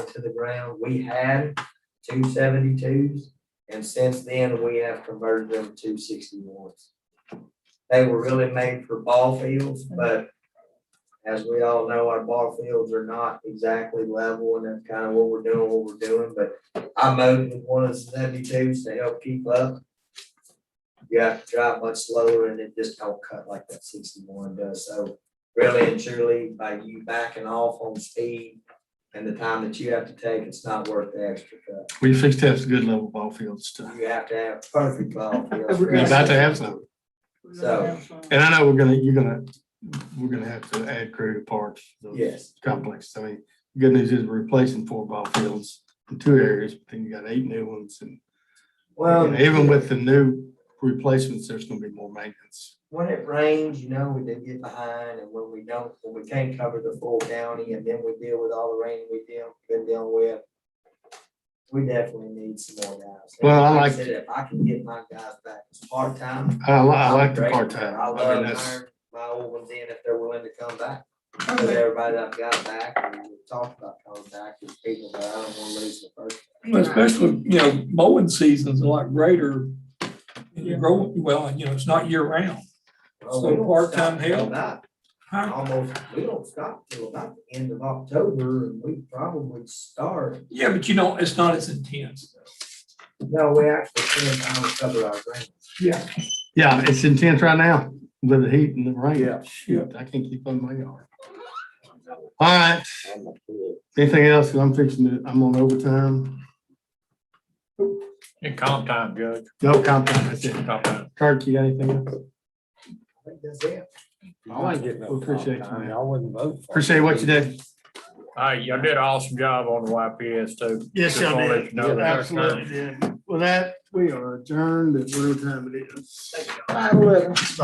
to the ground. We had two seventy-twos, and since then, we have converted them to sixty-ones. They were really made for ball fields, but as we all know, our ball fields are not exactly level, and that's kind of what we're doing, what we're doing, but I mowed with one of the seventy-twos to help keep up. You have to drive much slower, and it just don't cut like that sixty-one does, so really and truly by you backing off on speed and the time that you have to take, it's not worth the extra cut. We fixed to have good level ball fields to, You have to have perfect ball fields. we're about to have some. So, And I know we're gonna, you're gonna, we're gonna have to add crew to parks. those yes, Complex. I mean, good news is we're replacing four ball fields in two areas, but then you got eight new ones and well. and even with the new replacements, there's gonna be more maintenance. When it rains, you know, we did get behind and when we don't, when we can't cover the full county and then we deal with all the rain we deal, been dealing with. We definitely need some more guys. Well, I like- said, If I can get my guys back, it's part-time. I li- I like the I'm grateful. part-time. I I mean, love that's, hiring my old ones in if they're willing to come back. Cause everybody that I've got back, and we talked about coming back, is people that I don't wanna lose the first. Well, Especially, you know, mowing seasons are a lot greater. You grow, well, and you know, it's not year round. Well, So we don't part-time stop till help? about- Huh? Almost, we don't stop till about the end of October and we probably start, Yeah, but you don't, it's not as intense. no, we actually spend time to cover our ground. Yeah. yeah, it's intense right now with the heat and the rain. Yeah. Shoot, I can't keep on my yard. All right. Anything else? 'Cause I'm fixing to, I'm on overtime. In comp time, Judge, No comp time, that's it. comp time. Kirk, you got anything else? I think that's it. I ain't getting no We appreciate comp time. you, man. I wouldn't vote. for it. Appreciate what you did. All right, y'all did an awesome job on the YPS too. Yes, Just y'all wanna let did. you know that. oh Absolutely did. With that, we are adjourned at whatever time it is.